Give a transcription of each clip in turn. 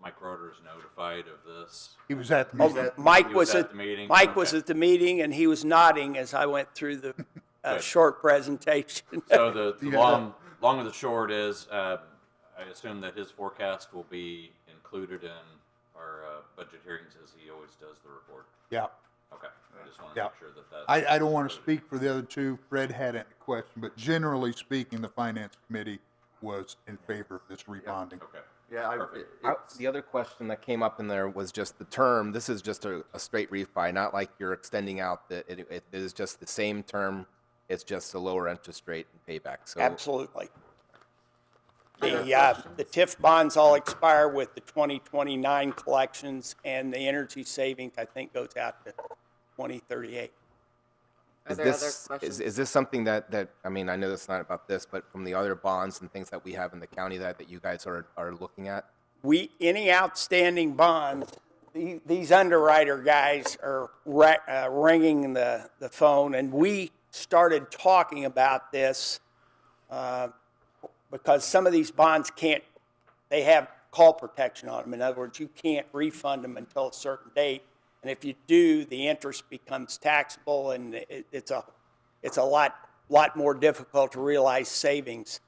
was notified of this? He was at the Oh, meeting. He Mike was was at at, the meeting? Mike was Okay. at the meeting and he was nodding as I went through the uh, Good. short presentation. So the, the Yeah. long, long and the short is, uh, I assume that his forecast will be included in our, uh, budget hearings as he always does the report. Yeah. Okay, I just wanted to Yeah. make sure that that's. I, I don't want to speak for the other two. Fred had a question, but generally speaking, the finance committee was in favor of this rebonding. Okay, Yeah, I, Perfect. it- I- it's- The other question that came up in there was just the term. This is just a, a straight refi, not like you're extending out the, it, it is just the same term. It's just a lower interest rate and payback. So Absolutely. The, uh, the TIF bonds all expire with the 2029 collections and the energy savings, I think, goes out to 2038. is there other this, is, questions? is this something that, that, I mean, I know that's not about this, but from the other bonds and things that we have in the county that, that you guys are, are looking at? we, any outstanding bonds, the- these underwriter guys are ra- uh, ringing the, the phone, and we started talking about this uh, because some of these bonds can't, they have call protection on them. In other words, you can't refund them until a certain date, and if you do, the interest becomes taxable, and it, it's a, it's a lot, lot more difficult to realize savings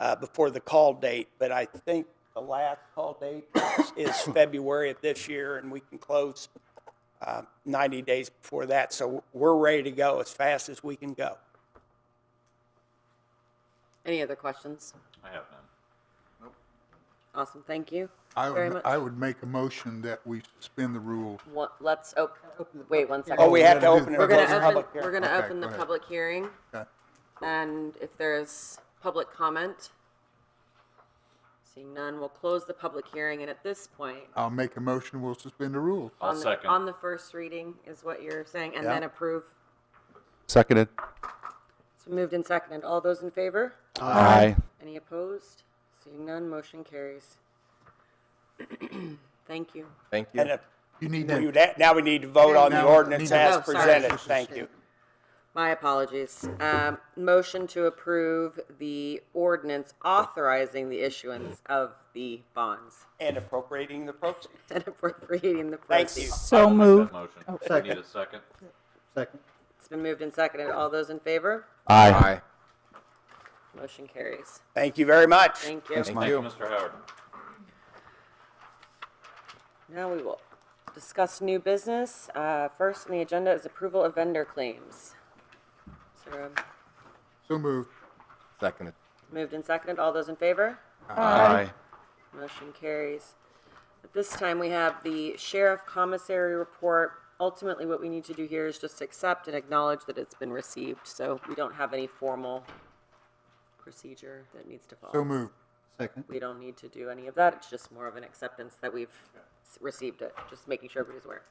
uh, before the call date, but I think the last call date is- is February of this year, and we can close uh, 90 days before that. So we're ready to go as fast as we can go. Any other questions? I have none. Awesome, thank you I very would, much. I would make a motion that we suspend the rule. What- Let's, op- wait one second. Oh, we have to gotta do- open it. We're close gonna open, public we're hearing. gonna Okay, open the go ahead. public hearing, Okay. and if there's public comment, seeing none, we'll close the public hearing, and at this point, I'll make a motion, we'll suspend the rules. I'll on the, second. on the first reading is what you're saying, and Yeah. then approve. Seconded. So moved and seconded. All those in favor? Aye. Any opposed? Seeing none, motion carries. Thank you. Thank you. And if You need we to, would ha- Now we need to vote on the Now, ordinance need to- as Oh, sorry. presented. Thank you. My apologies. Um, motion to approve the ordinance authorizing the issuance of the bonds And appropriating the proceeds. and appropriating the Thank you. proceeds. I So will make that moved. Oh, Motion. Do we need a second? Second. It's been moved and seconded. All those in favor? Aye. Motion carries. Thank you very much. Thank you. Thank you, Mr. Howard. Now we will discuss new business. Uh, first on the agenda is approval of vendor claims. So so moved. Seconded. moved and seconded. All those in favor? Aye. Motion carries. At this time, we have the sheriff commissary report. Ultimately, what we need to do here is just accept and acknowledge that it's been received, so we don't have any formal procedure that needs to So follow. moved. Second. We don't need to do any of that. It's just more of an acceptance that we've s- received it, just making sure everybody's aware.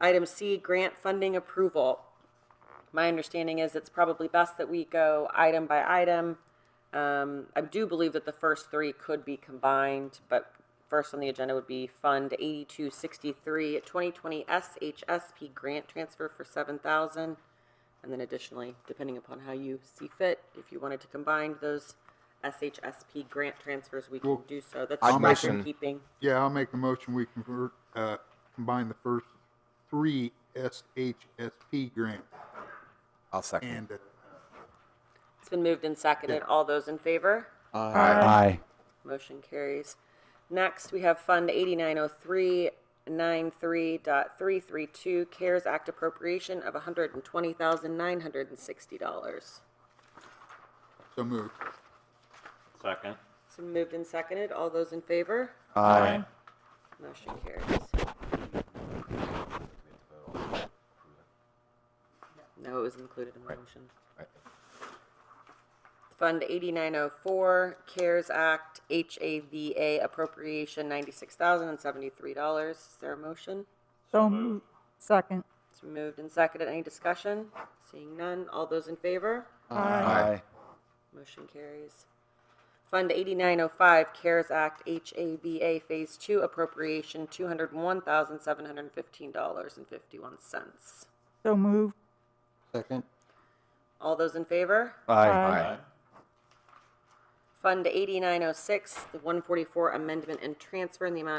Item C, grant funding approval. My understanding is it's probably best that we go item by item. Um, I do believe that the first three could be combined, but first on the agenda would be Fund 8263, 2020 SHSP grant transfer for 7000 And then additionally, depending upon how you see fit, if you wanted to combine those SHSP grant transfers, we can do so. That's I'll just motion. keeping. Yeah, I'll make a motion, we convert, uh, combine the first three SHSP grants I'll second. and, uh, It's been moved and seconded. All those in favor? Aye. Motion carries. Next, we have Fund 890393.332 CARES Act appropriation of $120,960. so moved. Second. It's been moved and seconded. All those in favor? Aye. Motion carries. No, it was included in the motion. Right. Fund 8904, CARES Act, HAVA appropriation, $96,073. Is there a motion? So moved. Second. It's been moved and seconded. Any discussion? Seeing none. All those in favor? Aye. Motion carries. Fund 8905, CARES Act, HAVA Phase 2 appropriation, $201,715.51. So moved. Second. All those in favor? Aye. oh Fund 8906, the 144 amendment and transfer in the amount